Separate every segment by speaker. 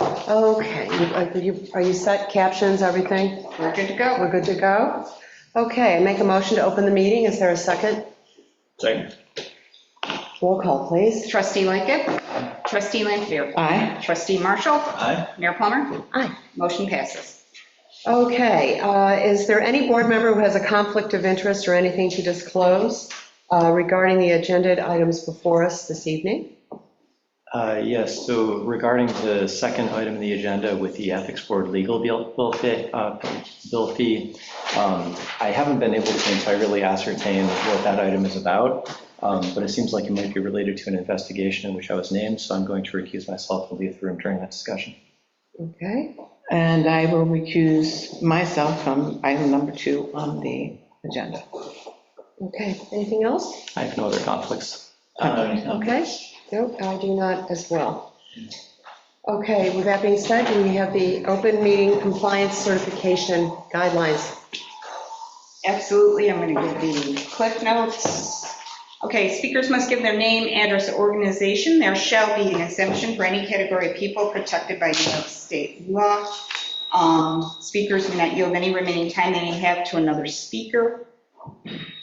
Speaker 1: Okay, you- are you- are you set, captions, everything?
Speaker 2: We're good to go.
Speaker 1: We're good to go? Okay, make a motion to open the meeting, is there a second?
Speaker 3: Second.
Speaker 1: Roll call, please.
Speaker 2: Trustee Lightkit. Trustee Lanfair.
Speaker 1: Aye.
Speaker 2: Trustee Marshall.
Speaker 3: Aye.
Speaker 2: Mayor Plummer.
Speaker 1: Aye.
Speaker 2: Motion passes.
Speaker 1: Okay, uh, is there any board member who has a conflict of interest or anything to disclose uh, regarding the agenda items before us this evening?
Speaker 4: Uh, Yes, so regarding the second item in the agenda with the Ethics Board legal bill bill fee, uh, bill fee, um, I haven't been able to entirely ascertain what that item is about, um, but it seems like it might be related to an investigation in which I was named, so I'm going to recuse myself and leave the room during that discussion.
Speaker 1: Okay,
Speaker 5: And I will recuse myself from item number two on the agenda.
Speaker 1: okay, anything else?
Speaker 4: I have no other conflicts. Uh,
Speaker 1: Okay, no, I do not as well. Okay, with that being said, we have the open meeting compliance certification guidelines.
Speaker 2: Absolutely, I'm going to give the cliff notes. Okay, speakers must give their name, address, organization. There shall be an exemption for any category of people protected by New York State law. Um, Speakers may not yield any remaining time they may have to another speaker.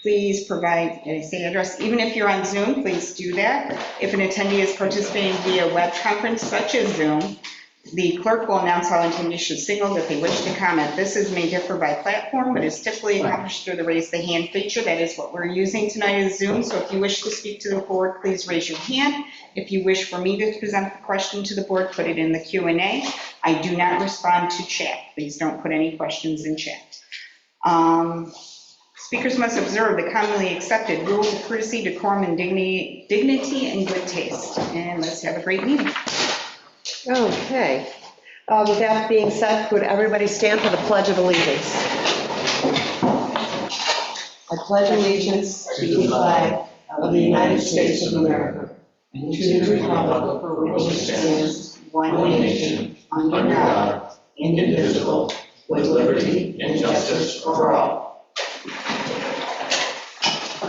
Speaker 2: Please provide, did I say address? Even if you're on Zoom, please do that. If an attendee is participating via web conference such as Zoom, the clerk will announce how attendees should signal that they wish to comment. This is may differ by platform, but is typically accomplished through the raise the hand feature. That is what we're using tonight is Zoom. So if you wish to speak to the board, please raise your hand. If you wish for me to present the question to the board, put it in the Q and A. I do not respond to chat. Please don't put any questions in chat. Um, Speakers must observe the commonly accepted rules of courtesy, decorum, and dignity, dignity and good taste. And let's have a great meeting.
Speaker 1: Okay, Uh, with that being said, would everybody stand for the Pledge of Allegiance? I pledge allegiance to the flag of the United States of America and to the republic for which it stands, one nation, under God, indivisible, with liberty and justice for all.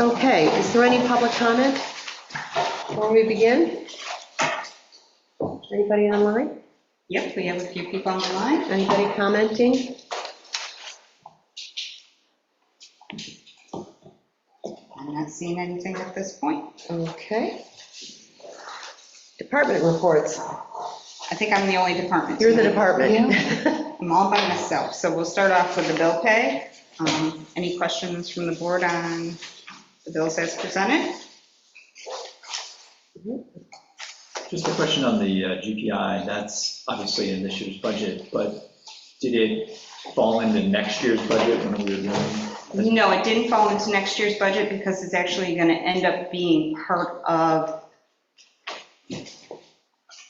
Speaker 1: Okay, is there any public comment before we begin? Anybody online?
Speaker 2: Yep, we have a few people on the line.
Speaker 1: Anybody commenting?
Speaker 2: I'm not seeing anything at this point.
Speaker 1: Okay. Department reports.
Speaker 2: I think I'm the only department.
Speaker 1: You're the
Speaker 2: tonight.
Speaker 1: department.
Speaker 2: I'm all by myself, so we'll start off with the bill pay. Um, Any questions from the board on the bills as presented?
Speaker 3: Just a question on the uh, GPI, that's obviously in this year's budget, but did it fall into next year's budget when we were doing?
Speaker 2: No, it didn't fall into next year's budget because it's actually going to end up being part of, I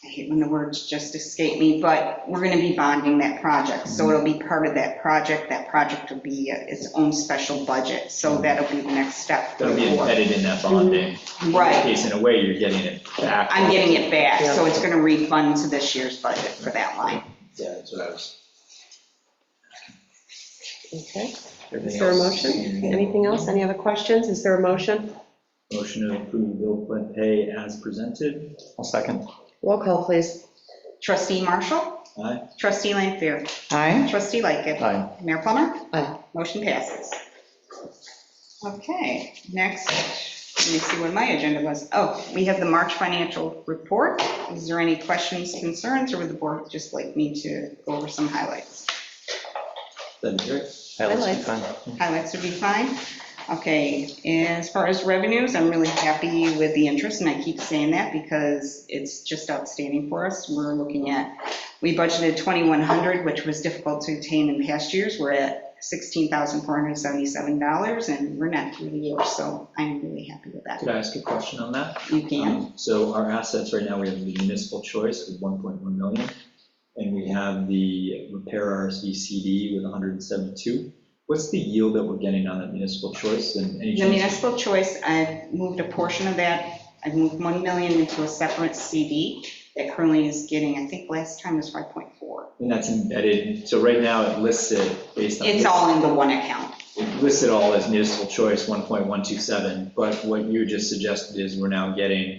Speaker 2: hate when the words just escape me, but we're going to be bonding that project. So it'll be part of that project. That project will be uh, its own special budget. So that'll be the next step.
Speaker 3: That'll be embedded in that bonding, in
Speaker 2: Right,
Speaker 3: case in a way you're getting it back.
Speaker 2: I'm getting it back, so it's going to refund to this year's budget for that line.
Speaker 3: Yeah, that's what I was.
Speaker 1: Okay. Is there a motion? Anything else? Any other questions? Is there a motion?
Speaker 3: Motion to approve bill pla- pay as presented.
Speaker 4: I'll second.
Speaker 1: Roll call, please.
Speaker 2: Trustee Marshall?
Speaker 3: Aye.
Speaker 2: Trustee Lanfair?
Speaker 5: Aye.
Speaker 2: Trustee Lightgev?
Speaker 4: Aye.
Speaker 2: Mayor Plummer?
Speaker 1: Aye.
Speaker 2: Motion passes. Okay, next, let me see what my agenda was. Oh, we have the March financial report. Is there any questions, concerns, or would the board just like me to go over some highlights?
Speaker 3: That'd be great.
Speaker 4: Highlights, fine.
Speaker 2: highlights would be fine. Okay, as far as revenues, I'm really happy with the interest, and I keep saying that because it's just outstanding for us. We're looking at, we budgeted 2,100, which was difficult to attain in past years. We're at $16,477, and we're not through the year, so I'm really happy with that.
Speaker 3: Could I ask a question on that?
Speaker 2: You can.
Speaker 3: Um, So our assets right now, we have the municipal choice with 1.1 million, and we have the repair RSV CD with 172. What's the yield that we're getting on that municipal choice and any
Speaker 2: The
Speaker 3: change?
Speaker 2: municipal choice, I've moved a portion of that, I've moved 1 million into a separate CD that currently is getting, I think last time was 5.4.
Speaker 3: And that's embedded, so right now it lists it based on.
Speaker 2: It's all in the one account.
Speaker 3: It lists it all as municipal choice, 1.127, but what you just suggested is we're now getting